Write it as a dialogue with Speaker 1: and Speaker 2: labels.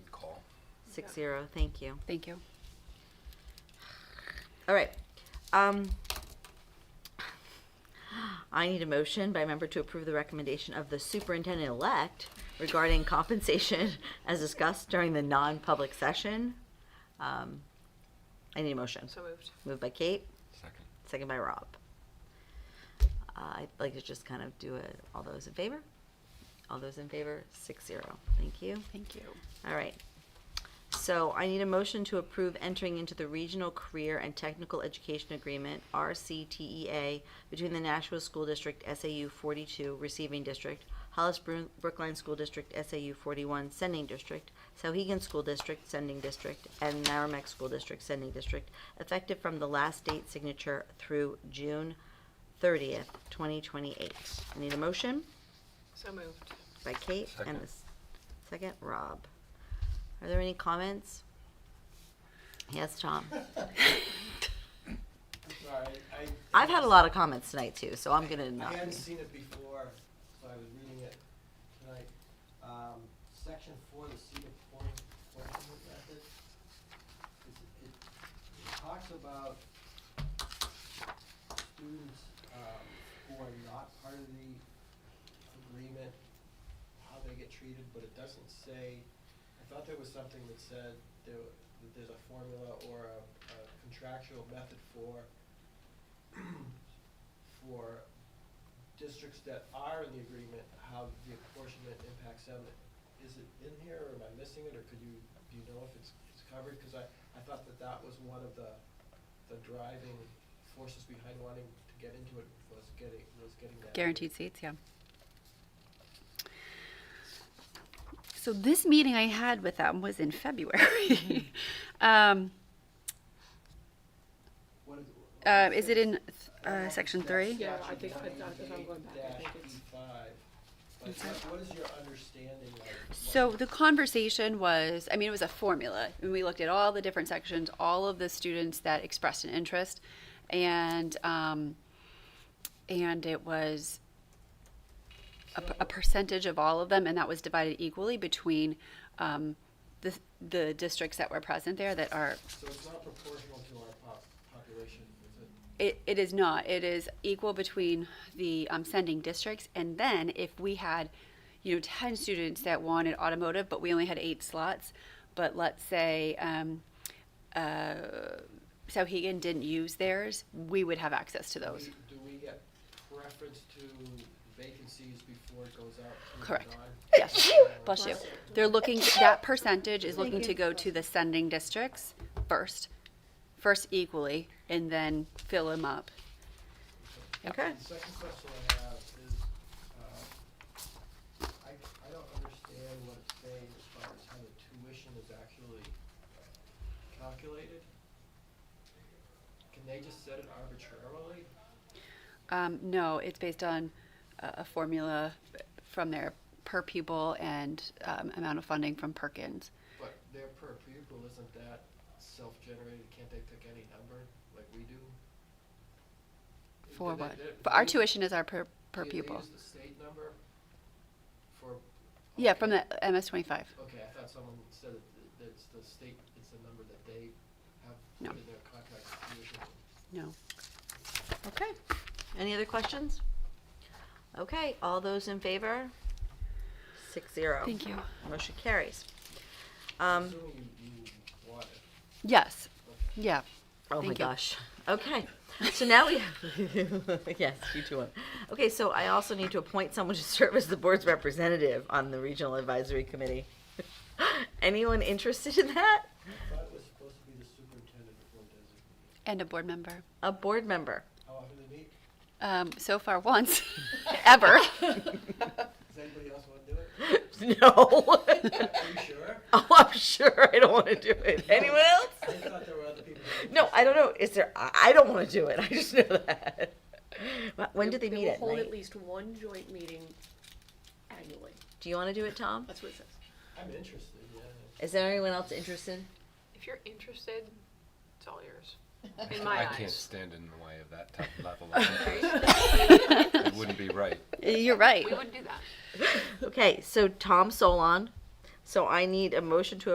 Speaker 1: Six zero, thank you.
Speaker 2: Thank you.
Speaker 1: All right. Um, I need a motion by member to approve the recommendation of the superintendent-elect regarding compensation as discussed during the non-public session. Um, I need a motion.
Speaker 3: So moved.
Speaker 1: Moved by Kate,
Speaker 4: Second.
Speaker 1: second by Rob. Uh, I'd like to just kind of do it, all those in favor? All those in favor, six zero. Thank you.
Speaker 2: Thank you.
Speaker 1: All right. So I need a motion to approve entering into the Regional Career and Technical Education Agreement, RCTEA, E between the Nashua School District SAU 42 Receiving District, Hollis Bru- Brookline School District SAU 41 Sending District, Sauhegan School District Sending District, and Merrimack School District Sending District, effective from the last date signature through June 30th, 2028. I need a motion?
Speaker 3: So moved.
Speaker 1: by Kate and
Speaker 4: Second.
Speaker 1: the s- second, Rob. Are there any comments? Yes, Tom.
Speaker 5: I'm sorry, I.
Speaker 1: I've had a lot of comments tonight too, so I'm gonna
Speaker 5: I
Speaker 1: not.
Speaker 5: hadn't
Speaker 1: be-
Speaker 5: seen it before, so I was reading it tonight. Um, section four, the Cedar Point appointment method. It's- It it talks about students, um, who are not part of the agreement, how they get treated, but it doesn't say, I thought there was something that said there, wa- that there's a formula or a a contractual method for, for districts that are in the agreement, how the apportionment impacts them. Is it in here, or am I missing it, or could you, do you know if it's, it's covered? Because I, I thought that that was one of the, the driving forces behind wanting to get into it, was getting, was getting that.
Speaker 2: Guaranteed seats, yeah. So this meeting I had with them was in February. Um,
Speaker 5: What is?
Speaker 2: uh, Is it in
Speaker 5: I don't know
Speaker 2: uh,
Speaker 5: if
Speaker 2: section
Speaker 5: it's that
Speaker 2: three?
Speaker 3: Yeah, I
Speaker 5: section
Speaker 3: think- I- I think I'm going back. I
Speaker 5: 98-E5,
Speaker 3: think it's-
Speaker 5: But what- what is your understanding like? what-
Speaker 2: So the conversation was, I mean, it was a formula, and we looked at all the different sections, all of the students that expressed an interest, and um, and it was a, p- a percentage of all of them, and that was divided equally between um, the the districts that were present there that are
Speaker 5: So it's not proportional to our pop, population, is it?
Speaker 2: It, it is not. It is equal between the um, sending districts. And then if we had, you know, 10 students that wanted automotive, but we only had eight slots, but let's say um, uh, Sauhegan didn't use theirs, we would have access to those.
Speaker 5: We- Do we get preference to vacancies before it goes out to the
Speaker 2: Correct.
Speaker 5: non-
Speaker 2: Yes. Bless you. They're looking, that percentage is looking to go to the sending districts first, first equally, and then fill them up. Yep.
Speaker 1: Okay.
Speaker 5: The second question I have is, uh, I, I don't understand what it's saying as far as how the tuition is actually calculated. Can they just set it arbitrarily?
Speaker 2: Um, no, it's based on a, a formula from their per pupil and um, amount of funding from Perkins.
Speaker 5: But their per pupil isn't that self-generated, can't they pick any number like we do?
Speaker 2: For
Speaker 5: Do they-
Speaker 2: what?
Speaker 5: they-
Speaker 2: For our
Speaker 5: they-
Speaker 2: tuition is our per, per
Speaker 5: they- they
Speaker 2: pupil.
Speaker 5: use the state number for?
Speaker 2: Yeah, from
Speaker 5: okay.
Speaker 2: the MS twenty-five.
Speaker 5: Okay, I thought someone said that- that it's the state, it's the number that they have
Speaker 2: No.
Speaker 5: put in their contract with tuition.
Speaker 2: No.
Speaker 1: Okay. Any other questions? Okay, all those in favor? Six zero.
Speaker 2: Thank you.
Speaker 1: Motion carries.
Speaker 5: I'm
Speaker 1: Um,
Speaker 5: assuming you, you want it.
Speaker 2: Yes. Yeah.
Speaker 1: oh my
Speaker 2: Thank you.
Speaker 1: gosh. Okay. So now we have, yes, you two one. Okay, so I also need to appoint someone to serve as the board's representative on the Regional Advisory Committee. Anyone interested in that?
Speaker 5: I thought it was supposed to be the superintendent before designated.
Speaker 2: And a board member.
Speaker 1: A board member.
Speaker 5: How often do they meet?
Speaker 2: Um, so far, once, ever.
Speaker 5: Does anybody else want to do it?
Speaker 1: No.
Speaker 5: Are you sure?
Speaker 1: oh, I'm sure I don't want to do it. Anyone
Speaker 5: I
Speaker 1: else?
Speaker 5: just thought there were other people. that were
Speaker 1: No, I don't know. Is there? I, I don't want to do it. I just know that. Wh- When do they meet
Speaker 3: will
Speaker 1: at
Speaker 3: hold at
Speaker 1: night?
Speaker 3: least one joint meeting annually.
Speaker 1: Do you want to do it, Tom?
Speaker 3: That's what it says.
Speaker 5: interested. I'm interested, yeah.
Speaker 1: Is there anyone else interested?
Speaker 3: If you're interested, it's all yours. In my
Speaker 4: I can't
Speaker 3: eyes.
Speaker 4: stand in the way of that type of level of interest. It wouldn't be right.
Speaker 2: You're right.
Speaker 3: We wouldn't do that.
Speaker 1: Okay, so Tom Solon. So I need a motion to